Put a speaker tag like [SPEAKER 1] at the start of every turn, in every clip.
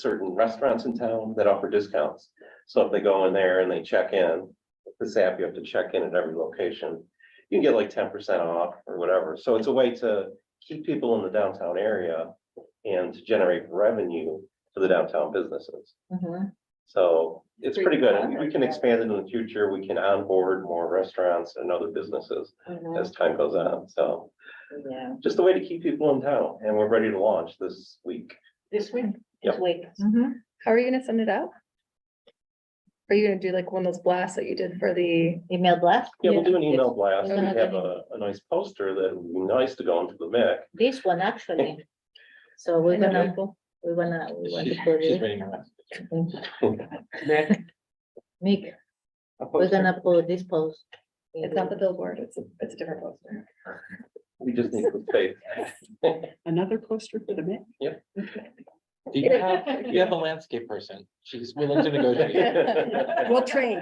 [SPEAKER 1] certain restaurants in town that offer discounts. So if they go in there and they check in, this app, you have to check in at every location. You can get like ten percent off or whatever. So it's a way to keep people in the downtown area and to generate revenue for the downtown businesses.
[SPEAKER 2] Mm-hmm.
[SPEAKER 3] Mhm.
[SPEAKER 1] So it's
[SPEAKER 3] Great
[SPEAKER 1] pretty good. and
[SPEAKER 3] concept,
[SPEAKER 1] We can
[SPEAKER 3] yeah.
[SPEAKER 1] expand it in the future. We can onboard more restaurants and other businesses
[SPEAKER 3] Mhm.
[SPEAKER 1] as time goes on. So
[SPEAKER 3] Yeah,
[SPEAKER 1] just a way to keep people in town and we're ready to launch this week.
[SPEAKER 3] this week,
[SPEAKER 1] Yep.
[SPEAKER 3] this week.
[SPEAKER 2] Mm-hmm.
[SPEAKER 4] Mhm. How are you gonna send it out? Are you gonna do like one of those blasts that you did for the,
[SPEAKER 3] Email blast,
[SPEAKER 1] Yeah, we'll
[SPEAKER 4] Yeah,
[SPEAKER 1] do an email blast.
[SPEAKER 3] we're
[SPEAKER 1] We
[SPEAKER 3] gonna
[SPEAKER 1] have
[SPEAKER 3] do-
[SPEAKER 1] a, a nice poster that would be nice to go into the MIC.
[SPEAKER 3] this one actually. So we're
[SPEAKER 4] I know
[SPEAKER 3] gonna,
[SPEAKER 4] people.
[SPEAKER 3] we're gonna, we want to put
[SPEAKER 5] She's
[SPEAKER 3] it,
[SPEAKER 5] reading her.
[SPEAKER 2] Nick,
[SPEAKER 3] Nick,
[SPEAKER 2] a
[SPEAKER 3] we're
[SPEAKER 2] poster.
[SPEAKER 3] gonna put this post. in
[SPEAKER 4] it's not the billboard, it's a, it's a different poster.
[SPEAKER 1] We just need the space.
[SPEAKER 2] Another poster for the Met.
[SPEAKER 5] Do you have, do you have a landscape person? She's willing to negotiate.
[SPEAKER 1] Yes,
[SPEAKER 2] train.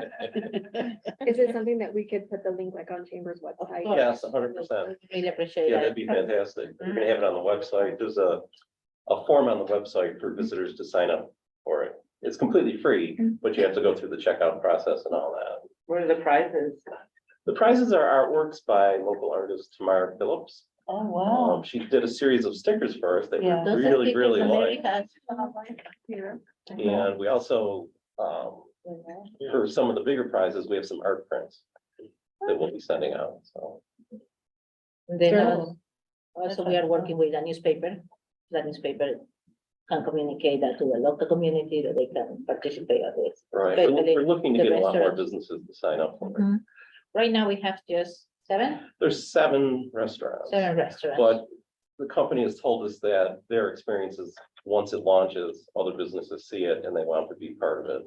[SPEAKER 4] Is it something that we could put the link like on Chambers website?
[SPEAKER 1] hundred percent.
[SPEAKER 3] Really appreciate
[SPEAKER 1] Yeah, that'd
[SPEAKER 3] that.
[SPEAKER 1] be fantastic. We're gonna have it on the website. There's a, a form on the website for visitors to sign up for it. It's completely free, but you have to go through the checkout process and all that.
[SPEAKER 2] What are the prizes?
[SPEAKER 1] The prizes are artworks by local artist Tamara Phillips.
[SPEAKER 2] Oh,
[SPEAKER 1] Um, she did a series of stickers for us that we
[SPEAKER 2] Yeah.
[SPEAKER 3] Those are
[SPEAKER 1] really,
[SPEAKER 3] pictures
[SPEAKER 1] really
[SPEAKER 3] from
[SPEAKER 1] like.
[SPEAKER 3] America.
[SPEAKER 1] And we also, um, for some of the bigger prizes, we have some art prints that we'll be sending out, so.
[SPEAKER 3] And Then uh,
[SPEAKER 4] Journal.
[SPEAKER 3] also we are working with a newspaper, that newspaper can communicate that to the local community that they can participate at this.
[SPEAKER 1] Right,
[SPEAKER 3] But
[SPEAKER 1] we're
[SPEAKER 3] I think
[SPEAKER 1] we're looking to
[SPEAKER 3] the
[SPEAKER 1] get a lot more
[SPEAKER 3] restaurant- Mm-hmm.
[SPEAKER 1] businesses to sign up for it.
[SPEAKER 4] Mhm.
[SPEAKER 3] Right now, we have just seven,
[SPEAKER 1] There's seven restaurants.
[SPEAKER 3] seven restaurants.
[SPEAKER 1] But the company has told us that their experience is, once it launches, other businesses see it and they want to be part of it.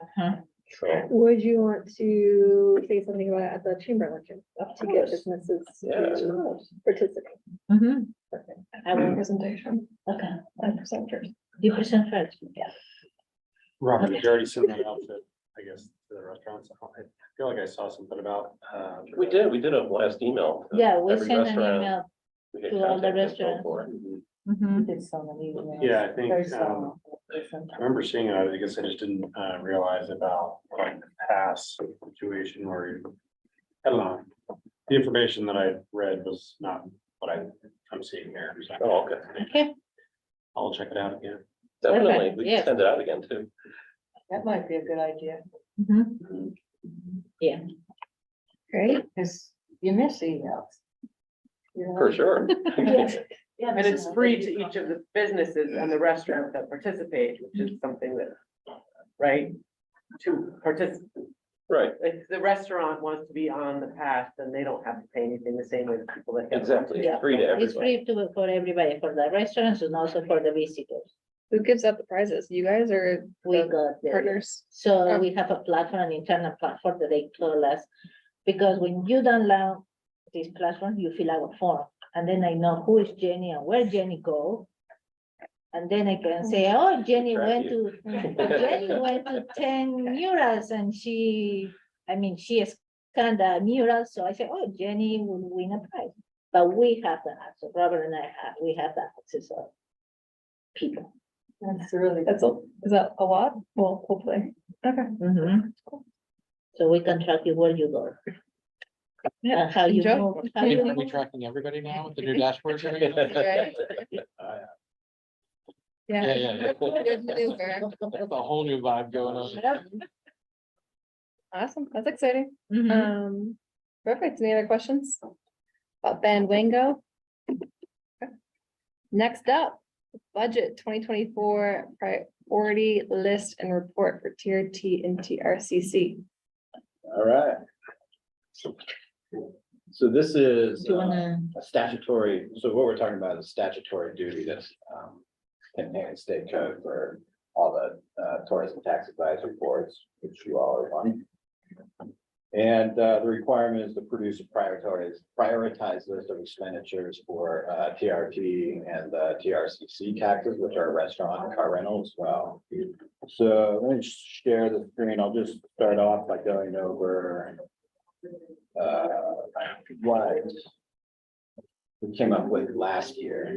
[SPEAKER 3] Uh-huh.
[SPEAKER 1] So,
[SPEAKER 4] Would you want to say something about it at the chamber luncheon
[SPEAKER 3] Of
[SPEAKER 4] to get
[SPEAKER 3] course.
[SPEAKER 4] businesses
[SPEAKER 1] Yeah.
[SPEAKER 4] to participate?
[SPEAKER 6] Mm-hmm.
[SPEAKER 3] Mhm. I will,
[SPEAKER 4] Presentation,
[SPEAKER 3] okay,
[SPEAKER 4] and presenters.
[SPEAKER 3] you present first, yeah.
[SPEAKER 6] Robert, did you already send that out to, I guess, to the restaurants. I feel like I saw something about. uh,
[SPEAKER 1] we did, we did a last email. to
[SPEAKER 3] Yeah, we
[SPEAKER 1] every
[SPEAKER 3] send an
[SPEAKER 1] restaurant.
[SPEAKER 3] email
[SPEAKER 1] We get
[SPEAKER 3] to all the
[SPEAKER 1] contact info
[SPEAKER 3] restaurants.
[SPEAKER 1] for it.
[SPEAKER 3] We did so many emails.
[SPEAKER 6] Mm-hmm. Yeah, I think,
[SPEAKER 3] There's,
[SPEAKER 6] um,
[SPEAKER 3] uh,
[SPEAKER 6] I remember seeing it. I guess I just didn't uh, realize about like the pass situation where you. I don't know. The information that I read was not what I, I'm seeing here. So
[SPEAKER 1] Oh, okay.
[SPEAKER 3] Okay,
[SPEAKER 6] I'll check it out again.
[SPEAKER 1] Definitely, we
[SPEAKER 3] yeah.
[SPEAKER 1] can send it out again too.
[SPEAKER 2] That might be a good idea,
[SPEAKER 6] Mm-hmm.
[SPEAKER 3] yeah,
[SPEAKER 4] Great.
[SPEAKER 2] because you miss emails.
[SPEAKER 1] For sure.
[SPEAKER 2] And it's free to each of the businesses and the restaurants that participate, which is something that, right? To participate,
[SPEAKER 1] Right,
[SPEAKER 2] if the restaurant wants to be on the path, then they don't have to pay anything the same way the people that. get-
[SPEAKER 1] exactly. It's
[SPEAKER 3] Yeah.
[SPEAKER 1] Free to
[SPEAKER 3] it's
[SPEAKER 1] everybody.
[SPEAKER 3] free to, for everybody, for the restaurants and also for the visitors.
[SPEAKER 4] Who gives out the prizes? You guys or
[SPEAKER 3] We
[SPEAKER 4] the
[SPEAKER 3] got the
[SPEAKER 4] partners?
[SPEAKER 3] So we have a platform, an internal platform that they told us, because when you download this platform, you fill out a form. And then I know who is Jenny and where Jenny go. And then I can say, oh, Jenny
[SPEAKER 1] Track
[SPEAKER 3] went to,
[SPEAKER 1] you.
[SPEAKER 3] Jenny went to ten murals and she, I mean, she is kind of mural, so I say, oh, Jenny will win a prize. But we have the access, Robert and I have, we have the access of people.
[SPEAKER 2] That's really.
[SPEAKER 4] That's, a is that a lot? Well, hopefully. Okay.
[SPEAKER 2] Mm-hmm.
[SPEAKER 3] So we can track you where you go.
[SPEAKER 4] Yeah,
[SPEAKER 3] and how you
[SPEAKER 4] enjoy.
[SPEAKER 3] move, how
[SPEAKER 5] Are
[SPEAKER 3] you
[SPEAKER 5] we
[SPEAKER 3] move.
[SPEAKER 5] tracking everybody now with the new dashboard? and everything?
[SPEAKER 4] Right?
[SPEAKER 5] Yeah,
[SPEAKER 4] Yeah.
[SPEAKER 5] yeah,
[SPEAKER 4] Good
[SPEAKER 5] yeah.
[SPEAKER 4] maneuver.
[SPEAKER 5] That's a whole new vibe going on.
[SPEAKER 4] Awesome, that's exciting.
[SPEAKER 2] Mm-hmm.
[SPEAKER 3] Mhm.
[SPEAKER 4] Um, perfect. Any other questions? About Fandango? Okay. Next up, budget twenty twenty-four priority list and report for TRT and TRCC.
[SPEAKER 7] All right. So this is
[SPEAKER 3] Do you
[SPEAKER 7] uh,
[SPEAKER 3] wanna,
[SPEAKER 7] a statutory, so what we're talking about is statutory duty that's um contained in state code for all the uh, tourism tax advisory boards, which you all are on. And uh, the requirement is to produce a prioritized, prioritized list of expenditures for uh, TRT and uh, TRCC taxes, which are restaurant and car rental as well. So let me just share the screen. I'll just start off by going over uh, what we came up with last year.